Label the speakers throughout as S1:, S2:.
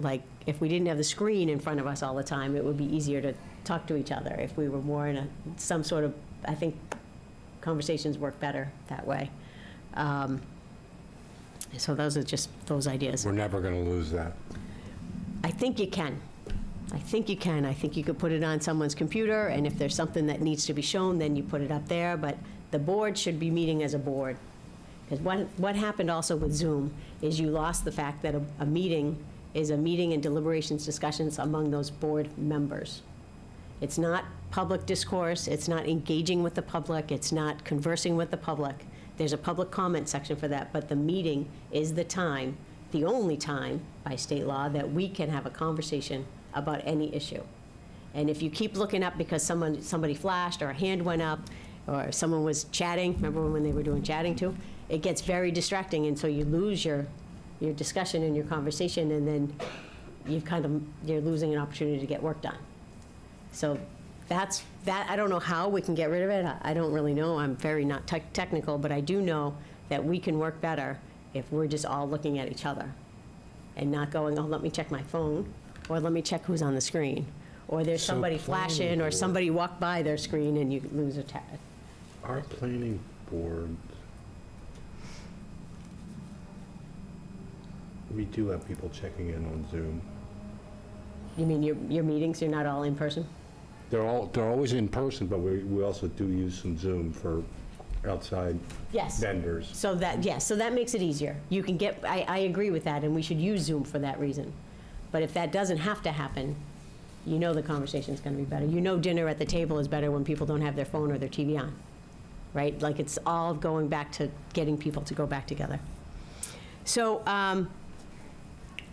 S1: like, if we didn't have the screen in front of us all the time, it would be easier to talk to each other. If we were more in a, some sort of, I think conversations work better that way. Um, So those are just those ideas.
S2: We're never going to lose that.
S1: I think you can. I think you can. I think you could put it on someone's computer, and if there's something that needs to be shown, then you put it up there, but the board should be meeting as a board. Because what, what happened also with Zoom is you lost the fact that a, a meeting is a meeting and deliberations, discussions among those board members. It's not public discourse, it's not engaging with the public, it's not conversing with the public. There's a public comment section for that, but the meeting is the time, the only time by state law, that we can have a conversation about any issue. And if you keep looking up because someone, somebody flashed, or a hand went up, or someone was chatting, remember when they were doing chatting too? It gets very distracting, and so you lose your, your discussion and your conversation, and then you've kind of, you're losing an opportunity to get work done. So that's, that, I don't know how we can get rid of it. I- I don't really know. I'm very not tech- technical, but I do know that we can work better if we're just all looking at each other and not going, oh, let me check my phone, or let me check who's on the screen, or there's
S2: So
S1: somebody
S2: planning
S1: flashing, or
S2: board.
S1: somebody walked by their screen and you lose a ta-
S2: Our planning board, we do have people checking in on Zoom.
S1: You mean your, your meetings, you're not all in person?
S2: They're all, they're always in person, but we, we also do use some Zoom for outside
S1: Yes.
S2: vendors.
S1: So that, yes, so that makes it easier. You can get, I, I agree with that, and we should use Zoom for that reason. But if that doesn't have to happen, you know the conversation's gonna be better. You know dinner at the table is better when people don't have their phone or their TV on, right? Like, it's all going back to getting people to go back together. So, um,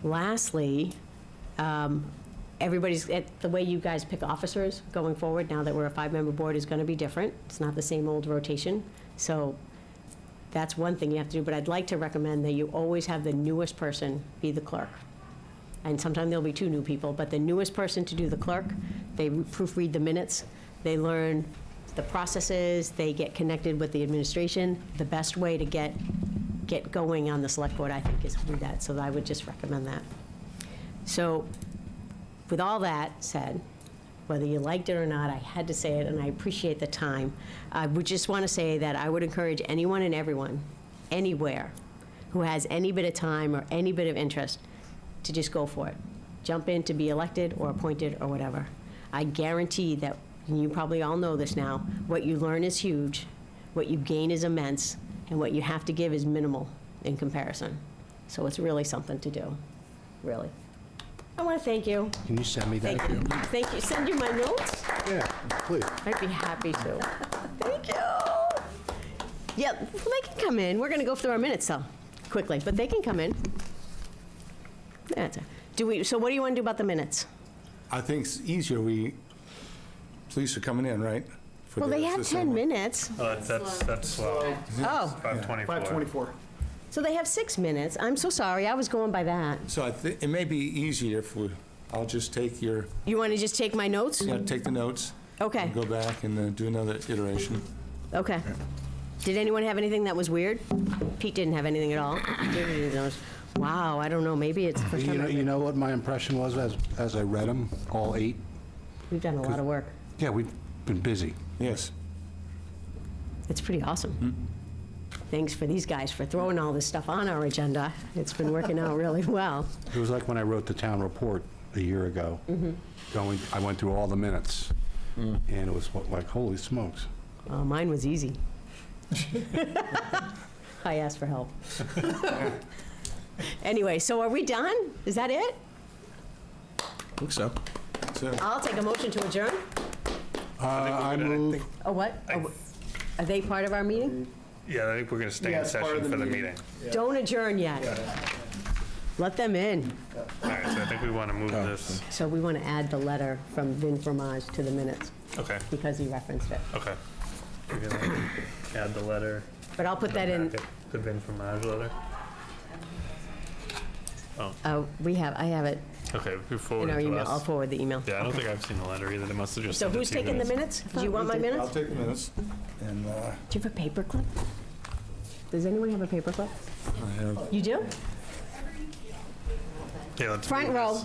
S1: lastly, um, everybody's, eh, the way you guys pick officers going forward, now that we're a five-member board, is gonna be different. It's not the same old rotation. So that's one thing you have to do, but I'd like to recommend that you always have the newest person be the clerk. And sometimes there'll be two new people, but the newest person to do the clerk, they proofread the minutes, they learn the processes, they get connected with the administration. The best way to get, get going on the select board, I think, is to do that, so I would just recommend that. So, with all that said, whether you liked it or not, I had to say it, and I appreciate the time. I would just want to say that I would encourage anyone and everyone, anywhere, who has any bit of time or any bit of interest, to just go for it. Jump in to be elected or appointed or whatever. I guarantee that, and you probably all know this now, what you learn is huge, what you gain is immense, and what you have to give is minimal in comparison. So it's really something to do, really. I want to thank you.
S3: Can you send me that?
S1: Thank you. Thank you. Send you my notes?
S2: Yeah, please.
S1: I'd be happy to. Thank you. Yeah, well, they can come in. We're going to go through our minutes, though, quickly, but they can come in. That's it. Do we, so what do you want to do about the minutes?
S4: I think it's easier we, police are coming in, right? For
S1: Well, they
S4: the-
S1: have
S4: the same-
S1: 10 minutes.
S5: Oh, that's, that's, that's slow.
S1: Oh,
S5: 524.
S1: so they have six minutes. I'm so sorry. I was going by that.
S4: So I thi- it may be easier if we, I'll just take your,
S1: You want to just take my notes?
S4: yeah, take the notes.
S1: Okay.
S4: and Go back and then do another iteration.
S1: Okay. Did anyone have anything that was weird? Pete didn't have anything at all. Wow, I don't know. Maybe it's the first
S3: You
S1: time.
S3: know, you
S1: I've-
S3: know what my impression was as, as I read them, all eight?
S1: We've done a lot of work.
S3: Yeah, we've been busy.
S4: Yes.
S1: It's pretty awesome. Thanks for these guys for throwing all this stuff on our agenda. It's been working out really well.
S3: It was like when I wrote the town report a year ago. Going, I went through all the minutes, and it was like, holy smokes.
S1: Uh, Mine was easy. I asked for help. Anyway, so are we done? Is that it?
S4: Looks so. So,
S1: I'll take a motion to adjourn.
S3: Uh, I move,
S1: Oh, what? Oh, Are they part of our meeting?
S5: Yeah, I think we're gonna stay in session for the meeting.
S1: Don't adjourn yet. Let them in.
S5: All right, so I think we wanna move this.
S1: So we want to add the letter from Vin Fromage to the minutes
S5: Okay,
S1: because he referenced it.
S5: okay. We're gonna Add the letter.
S1: But I'll put that in,
S5: The Vin Fromage letter.
S1: uh, we have, I have it
S5: Okay, before
S1: in our
S5: it to
S1: email. I'll
S5: us.
S1: forward the email.
S5: Yeah, I don't think I've seen the letter either. They must have just
S1: So
S5: sent it
S1: who's
S5: to you
S1: taking the
S5: guys.
S1: minutes? Do you want my
S4: I'll
S1: minutes?
S4: take the minutes and uh,
S1: Do you have a paperclip? Does anyone have a paperclip?
S4: I have
S1: You do?
S5: Yeah, let's
S1: Front
S5: move
S1: row.
S5: this.